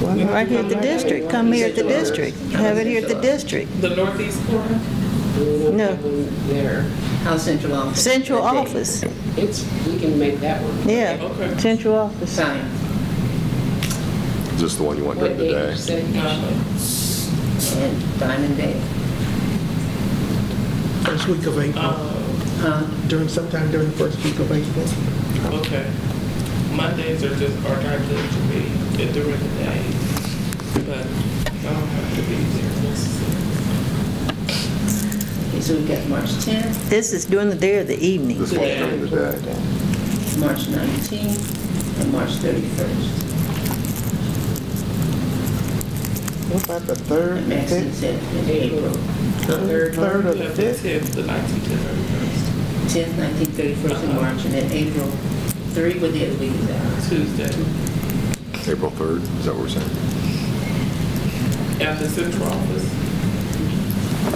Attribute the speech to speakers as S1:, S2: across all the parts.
S1: Right here at the district, come here at the district, have it here at the district.
S2: The northeast corner?
S1: No.
S3: There, how central office?
S1: Central office,
S3: It's, we can make that one.
S1: yeah,
S2: Okay.
S1: central office.
S3: Sign.
S4: Is this the one you want during the
S3: What
S4: day?
S3: age said you should- And Diamond Day.
S5: First week of April,
S2: Uh,
S5: during, sometime during the first week of April.
S2: uh, Okay. Mondays are just, are calculated to be during the day, but I don't have to be there necessarily.
S3: Okay, so we've got March 10th,
S1: This is during the day of the evening.
S4: This one's during the day.
S3: March 19th, and March 31st.
S6: What about the third,
S3: And
S6: the
S3: Maxine
S6: fifth,
S3: said in April. The third,
S6: third or
S2: We
S6: the
S2: have the
S6: fifth?
S2: 10th, the 19th, and
S3: 10th, 19th, 31st, and March, and then April 3, what day of the week is that?
S2: 31st, Tuesday,
S4: April 3rd, is that what we're saying?
S2: at the central office.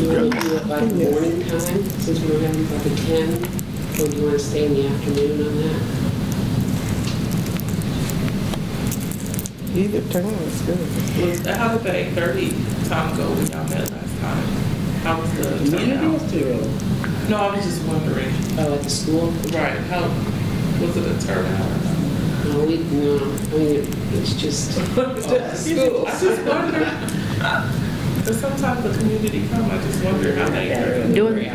S7: You want to do it by the morning time, since we're having like a 10, or do you want to stay in the afternoon on that?
S6: either term is good.
S2: Was, how did the 8:30 time go when y'all met last time? How was the
S3: Community
S2: turnout?
S3: is through.
S2: No, I was just wondering,
S7: Oh, at the school?
S2: right, how, was it a turnout? or not?
S7: No, we, no, I mean, it- it's just,
S2: I just wonder, because sometimes the community come, I just wonder how they.
S1: Doing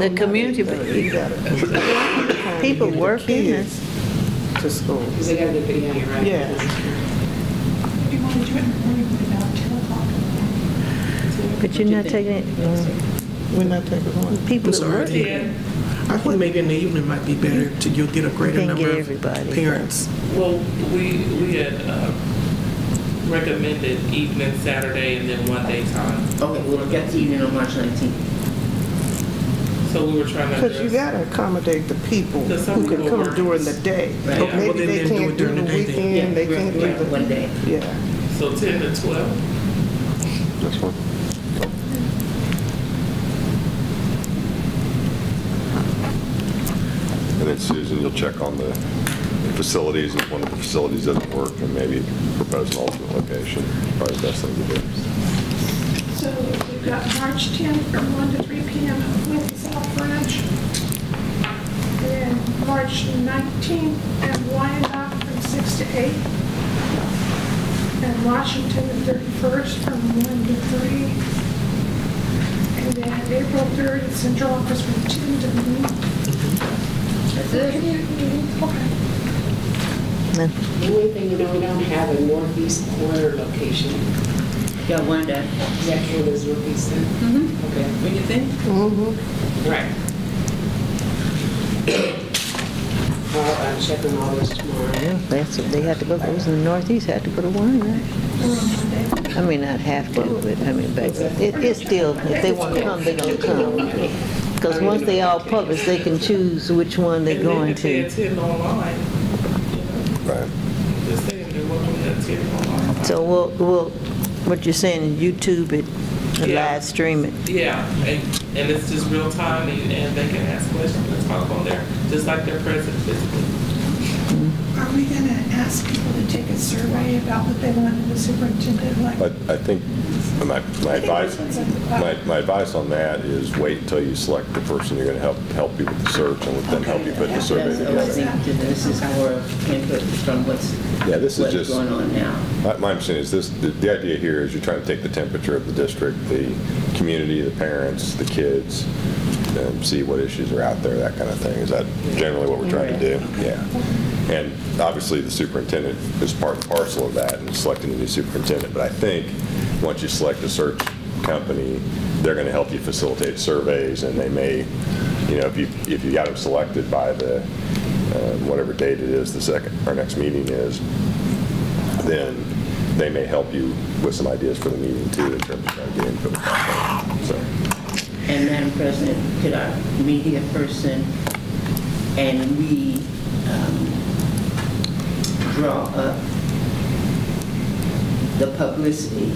S1: the community,
S6: You gotta- you gotta
S1: people
S6: get the
S1: working and
S6: kids To school.
S7: because they got to get out, right?
S6: Yeah.
S8: You want to do it in the morning about 10 o'clock?
S1: But you're not taking it,
S6: We're not taking one.
S1: people
S5: I'm
S1: that
S5: sorry.
S1: work.
S2: Yeah,
S5: I think maybe in the evening might be better to, you'll get a greater
S1: Can't
S5: number
S1: get
S5: of
S1: everybody.
S5: parents.
S2: well, we, we had uh, recommended evening Saturday and then one day time.
S3: Okay, we'll get to evening on March 19th.
S2: So we were trying to.
S6: Because you
S2: address-
S6: gotta accommodate the people
S2: Because some
S6: who can
S2: people
S6: come
S2: work.
S6: during the day.
S3: Right.
S5: Okay, well,
S6: Maybe
S5: then-
S6: they
S5: then do
S6: can't
S5: it
S6: do
S5: during
S6: the
S5: the day then.
S6: weekend, they
S3: right,
S6: can't
S3: right,
S6: do
S3: One
S6: the,
S3: day.
S6: yeah.
S2: So ten to twelve,
S4: This one? And then Susan, you'll check on the facilities, if one of the facilities doesn't work, and maybe propose an alternate location, probably the best thing to do.
S8: So we've got March 10th from 1 to 3 p.m. at Lincoln South Branch. And March 19th at Wyandotte from 6 to 8. And Washington the 31st from 1 to 3. And then April 3rd at Central Office from 10 to noon.
S3: That's it.
S8: Okay.
S7: The only thing, you know, we don't have a northeast corner location.
S3: Got one day.
S7: Does that count as northeast then? Mm-hmm. Okay,
S3: What do you think?
S7: right. I'll uh, check on all those tomorrow.
S1: Yeah, that's, they had to go, those in the Northeast had to go to one, right? I mean, not have to, but, I mean, but it, it's still, if they want to come, they're gonna come. Because once they all publish, they can choose which one they're
S2: and then
S1: going
S2: if they
S1: to.
S2: attend online,
S4: Right.
S2: just saying they're welcome to attend online.
S1: So we'll, we'll, what you're saying, YouTube it, and
S2: Yeah.
S1: live stream it.
S2: Yeah, and, and it's just real time, and, and they can ask questions and talk on there, just like they're present physically.
S8: Are we going to ask people to take a survey about what they want in the superintendent? Like,
S4: But I think my, my advice, my, my advice on that is wait until you select the person you're gonna help, help you with the search and let them help you put the survey
S3: That's what I
S4: together.
S3: think, that This is more input from what's,
S4: Yeah, this is
S3: what's
S4: just,
S3: going on now.
S4: my, my understanding is this, the, the idea here is you're trying to take the temperature of the district, the community, the parents, the kids, and see what issues are out there, that kind of thing. Is that generally what we're trying to do? Yeah. And obviously, the superintendent is part and parcel of that and selecting the new superintendent. But I think, once you select a search company, they're going to help you facilitate surveys and they may, you know, if you, if you got them selected by the, um, whatever date it is, the second, our next meeting is, then they may help you with some ideas for the meeting too in terms of trying to get input. So.
S3: And Madam President, could our media person and we um, draw up the publicity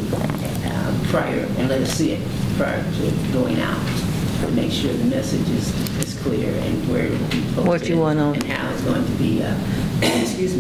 S3: uh, prior, and let us see it prior to going out, and make sure the message is, is clear and where it will be posted.
S1: What you want on-
S3: And how it's going to be, uh, excuse me,